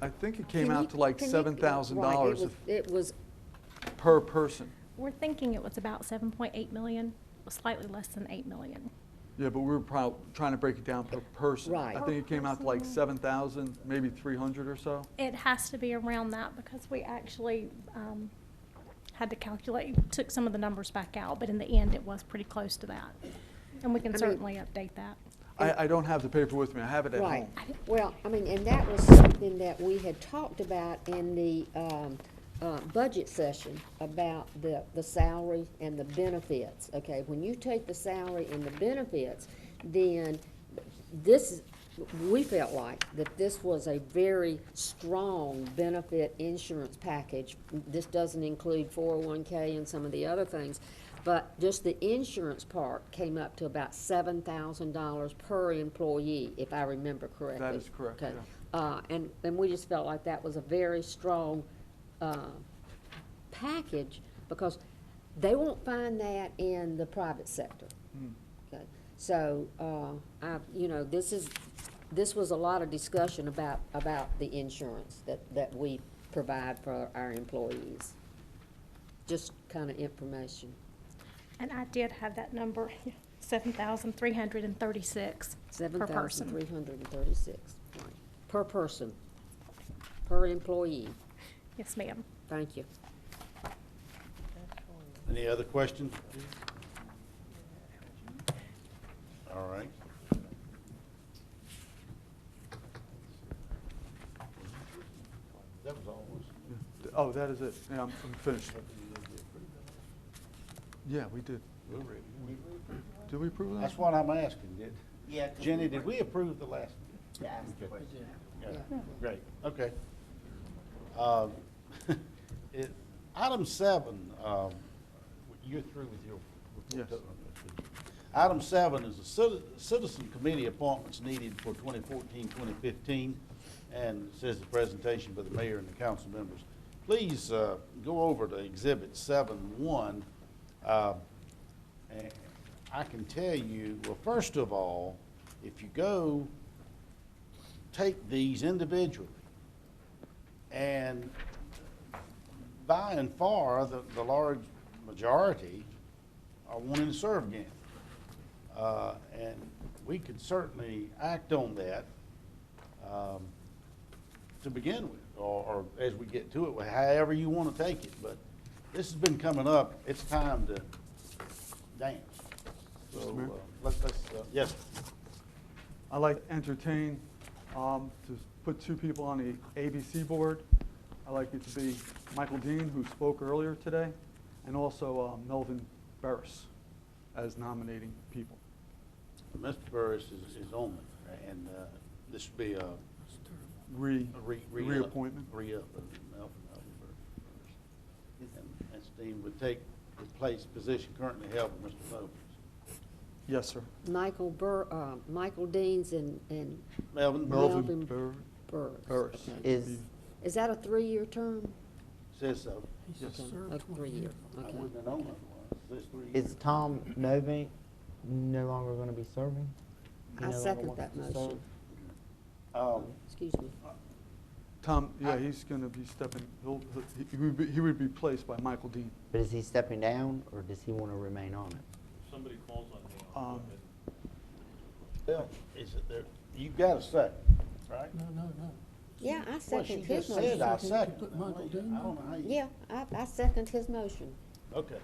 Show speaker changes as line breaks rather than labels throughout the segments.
I think it came
Can
out
you-
to like
can you-
seven thousand
right, it
dollars
was- It was,
per person.
We're thinking it was about 7.8 million, was slightly less than 8 million.
Yeah, but we were prob- trying to break it down per person.
Right.
I think it came out to like seven thousand, maybe three hundred or so.
It has to be around that because we actually um, had to calculate, took some of the numbers back out, but in the end, it was pretty close to that. And we
I
can
mean-
certainly update that.
I, I don't have the paper with me, I have it at
right.
home.
Well, I mean, and that was something that we had talked about in the, um, uh, budget session about the, the salary and the benefits, okay? When you take the salary and the benefits, then this, is- we felt like that this was a very strong benefit insurance package. This doesn't include four oh one K and some of the other things. But just the insurance part came up to about seven thousand dollars per employee, if I remember correctly.
is correct,
Okay.
yeah.
Uh, and, and we just felt like that was a very strong, uh, package, because they won't find that in the private sector. Okay, so, uh, I, you know, this is, this was a lot of discussion about, about the insurance that, that we provide for our employees. Just kind of information.
And I did have that number, 7,336
Seven
per
thousand
person.
three hundred and thirty-six, per person, per employee.
Yes, ma'am.
Thank you.
Any other questions? All right. That was almost.
Oh, that is it, yeah, I'm I'm finished. Yeah, we did. Did we approve that?
That's what I'm asking, did,
Yeah, 'cause
Jenny,
we
did we approve the last?
Yeah, ask
Okay.
the question.
Yeah, Great, okay. Um, it- Item seven, um, you're through with your
Yes.
report. don't you? Item seven is the citi- citizen committee appointments needed for 2014, 2015, and it says the presentation by the mayor and the council members. Please uh, go over to Exhibit 7-1. uh, and I can tell you, well, first of all, if you go take these individually. And by and far, the, the large majority are wanting to serve again. Uh, and we could certainly act on that, um, to begin with, or, or as we get to it, however you want to take it. But this has been coming up, it's time to dance. So,
Mr. Mayor?
uh, let's, let's, uh, yes,
I'd like to entertain, um, to put two people on the ABC board. I'd like it to be Michael Dean, who spoke earlier today, and also uh, Melvin Burris as nominating people.
Mr. Burris is, is on it, and, uh, this should be a
Re,
a re- re-up-
reappointment.
Re-up of Malcolm Aldenberg. And- And Steve would take, replace position currently held by Mr. Mobley.
Yes, sir.
Michael Bur, uh, Michael Deans and, and
Melvin Burr
Melvin
Melvin Bur-
Burris.
Burris.
okay.
Is,
Is that a three-year term?
says so.
Yes,
Okay, A three-year,
I
okay.
wouldn't have known otherwise. This three
is
years.
Tom Novak no longer going to be serving? He
I
no longer
second
wants
that
to serve?
motion.
Um,
Excuse me.
Tom, yeah,
I-
he's going to be stepping, he'll, he- he would be, he would be placed by Michael Dean.
But is he stepping down, or does he want to remain on it?
somebody calls on me, I'll
Um,
do it.
Bill, is it there, you've got a second, right?
No, no, no.
Yeah, I
Well, she
second his
just said I
motion.
second.
Put
Now,
Michael
wait,
Dean
I don't know how you.
Yeah, I, I second his motion.
Okay.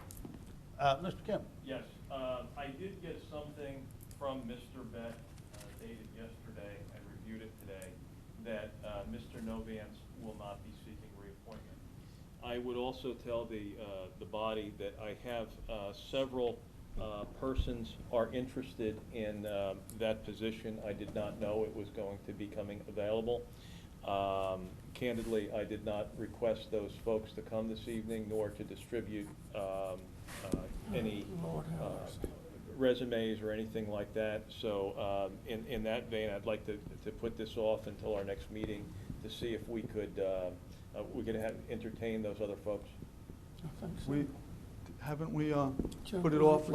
Uh, Mr. Kemp,
Yes, uh, I did get something from Mr. Beck uh, dated yesterday, I reviewed it today, that uh, Mr. Novance will not be seeking reappointment. I would also tell the, uh, the body that I have uh, several uh, persons are interested in um, that position. I did not know it was going to be coming available. Um, Candidly, I did not request those folks to come this evening, nor to distribute um, uh, any
Lord have
uh,
mercy.
resumes or anything like that. So um, in, in that vein, I'd like to, to put this off until our next meeting to see if we could, uh, uh, we could have, entertain those other folks.
I think so.
We, haven't we, uh,
Joe,
put it
we-
off